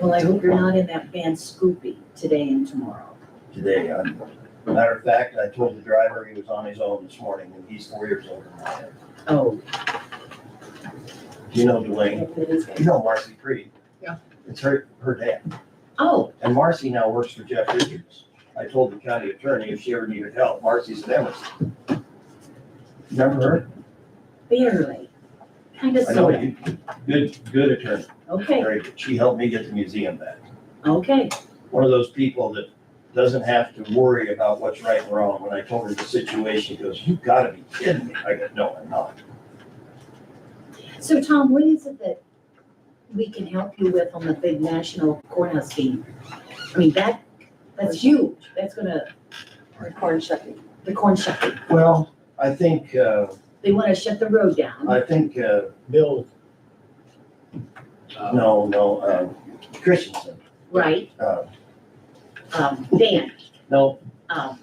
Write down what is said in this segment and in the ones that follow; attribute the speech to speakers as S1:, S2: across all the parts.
S1: Well, I hope you're not in that band Scoopy today and tomorrow.
S2: today. I'm- Matter of fact, I told the driver he was on his own this morning, and he's four years older than I am.
S1: Oh.
S2: Do you know Dwayne? You
S1: Oh,
S2: know Marcy Creed?
S3: Yeah.
S2: It's her, her dad.
S1: Oh,
S2: And Marcy now works for Jeff Richards. I told the county attorney if she ever needed help, Marcy's an Emerson. Remember her?
S1: barely. Kind of
S2: I know
S1: sorta.
S2: you, good, good attorney,
S1: Okay,
S2: very good. She helped me get the museum back.
S1: okay.
S2: One of those people that doesn't have to worry about what's right and wrong. When I told her the situation, she goes, you gotta be kidding me. I go, no, I'm not.
S1: So Tom, what is it that we can help you with on the big national courthouse team? I mean, that, that's huge. That's gonna,
S3: Corn shucking.
S1: the corn shucking.
S2: Well, I think, uh,
S1: They wanna shut the road down.
S2: I think, uh,
S4: Bill. uh,
S2: no, no, um, Christensen,
S1: Right,
S2: uh,
S1: um, Dan,
S2: no,
S1: um,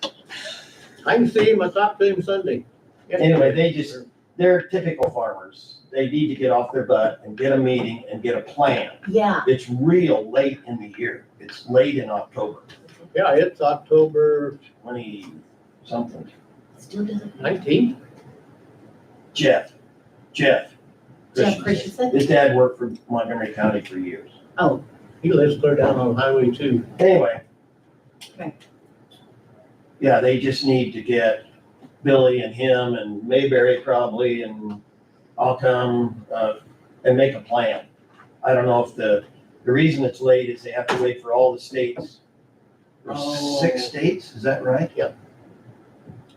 S4: I can see him, I talked to him Sunday.
S2: Anyway, they just- they're typical farmers. They need to get off their butt and get a meeting and get a plan.
S1: yeah,
S2: It's real late in the year. It's late in October,
S4: Yeah, it's October
S2: twenty something.
S1: still doesn't.
S4: nineteenth.
S2: Jeff, Jeff.
S1: Jeff
S2: Christensen.
S1: Christensen?
S2: His dad worked for Montgomery County for years.
S1: Oh,
S4: He lives clear down on Highway two.
S2: Anyway.
S1: Okay.
S2: Yeah, they just need to get Billy and him and Mayberry probably and I'll come, uh, and make a plan. I don't know if the, the reason it's late is they have to wait for all the states. There's Six
S4: Oh.
S2: states, is that right?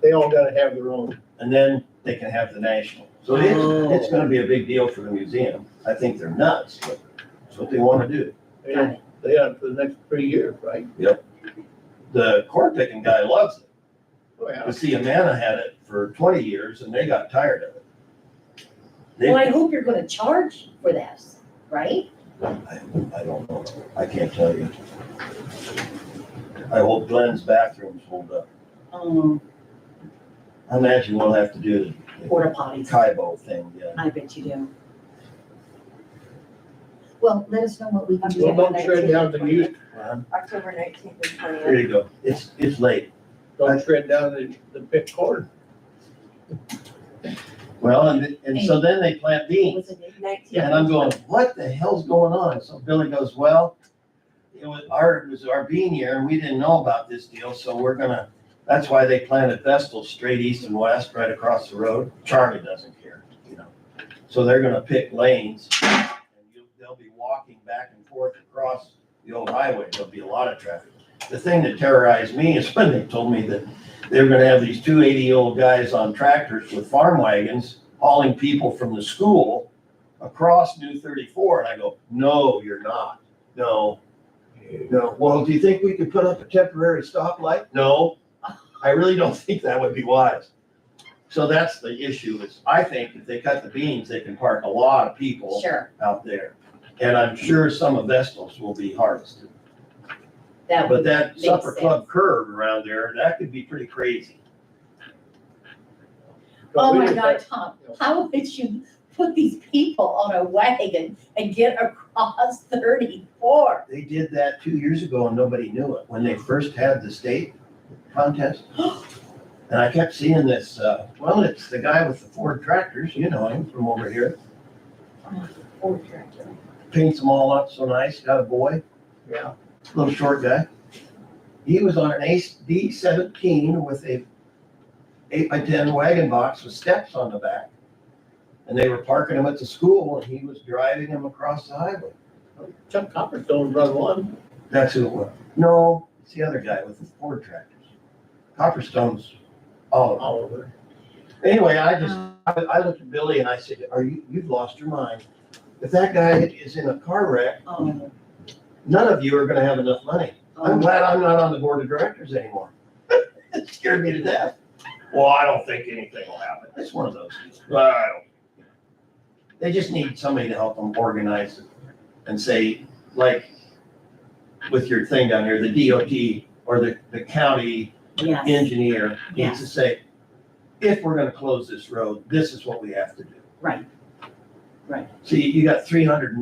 S4: They all gotta have their own.
S2: And then they can have the national. So it,
S1: Oh.
S2: it's gonna be a big deal for the museum. I think they're nuts, but it's what they wanna do.
S4: They
S1: got
S4: have,
S1: it.
S4: they have for the next three years, right?
S2: The corn picking guy loves it.
S4: Oh, yeah.
S2: But see, Amana had it for twenty years and they got tired of it. They,
S1: well, I
S2: I
S1: hope you're gonna charge for that, right?
S2: I don't know, I can't tell you. I hope Glenn's bathrooms hold up.
S1: Um,
S2: I imagine we'll have to do the
S1: porta potties.
S2: Kaibo thing, yeah.
S1: I bet you do. Well, let us know what we can do.
S4: Well, don't shred down the youth,
S2: Well,
S5: October nineteenth and
S2: Here
S5: twentieth.
S2: you go, it's, it's late.
S4: don't shred down the, the pit corn.
S2: Well, and, and so then they plant beans.
S1: Was it it?
S5: Nineteenth.
S2: And I'm going, what the hell's going on? So Billy goes, well, it was our, it was our bean year and we didn't know about this deal, so we're gonna, that's why they planted Vestal straight east and west, right across the road. Charlie doesn't care, you know. So they're gonna pick lanes and you'll, they'll be walking back and forth across the old highway. There'll be a lot of traffic. The thing that terrorized me is when they told me that they were gonna have these two eighty-year-old guys on tractors with farm wagons hauling people from the school across New 34, and I go, no, you're not. No, no. Well, do you think we could put up a temporary stoplight? No, I really don't think that would be wise. So that's the issue is I think if they cut the beans, they can park a lot of people
S1: Sure,
S2: out there. And I'm sure some of Vestal's will be harvested.
S1: that
S2: But
S1: would,
S2: that
S1: Makes
S2: supper club curve around there, that could be pretty crazy.
S1: oh
S4: We
S1: my
S4: just
S1: God,
S4: have-
S1: Tom, how would you put these people on a wagon and get across thirty-four?
S2: They did that two years ago and nobody knew it, when they first had the state contest. And I kept seeing this, uh, well, it's the guy with the Ford tractors, you know him from over here, paints them all up so nice, got a boy,
S4: Yeah,
S2: little short guy. He was on an ace D seventeen with a eight by ten wagon box with steps on the back. And they were parking him at the school and he was driving him across the highway.
S4: Chuck Copperstone run one.
S2: That's who it was. No, it's the other guy with the Ford tractors. Copperstone's all of them.
S4: all over.
S2: Anyway, I just, I, I looked at Billy and I said, are you, you've lost your mind. If that guy is in a car wreck,
S1: Oh,
S2: none of you are gonna have enough money.
S1: oh,
S2: I'm glad I'm not on the board of directors anymore. It scared me to death. Well, I don't think anything will happen. It's one of those. Well, I don't. They just need somebody to help them organize it and say, like, with your thing down here, the DOT or the, the county
S1: yes,
S2: engineer needs to say, if we're gonna close this road, this is what we have to do.
S1: right, right.
S2: See, you got three hundred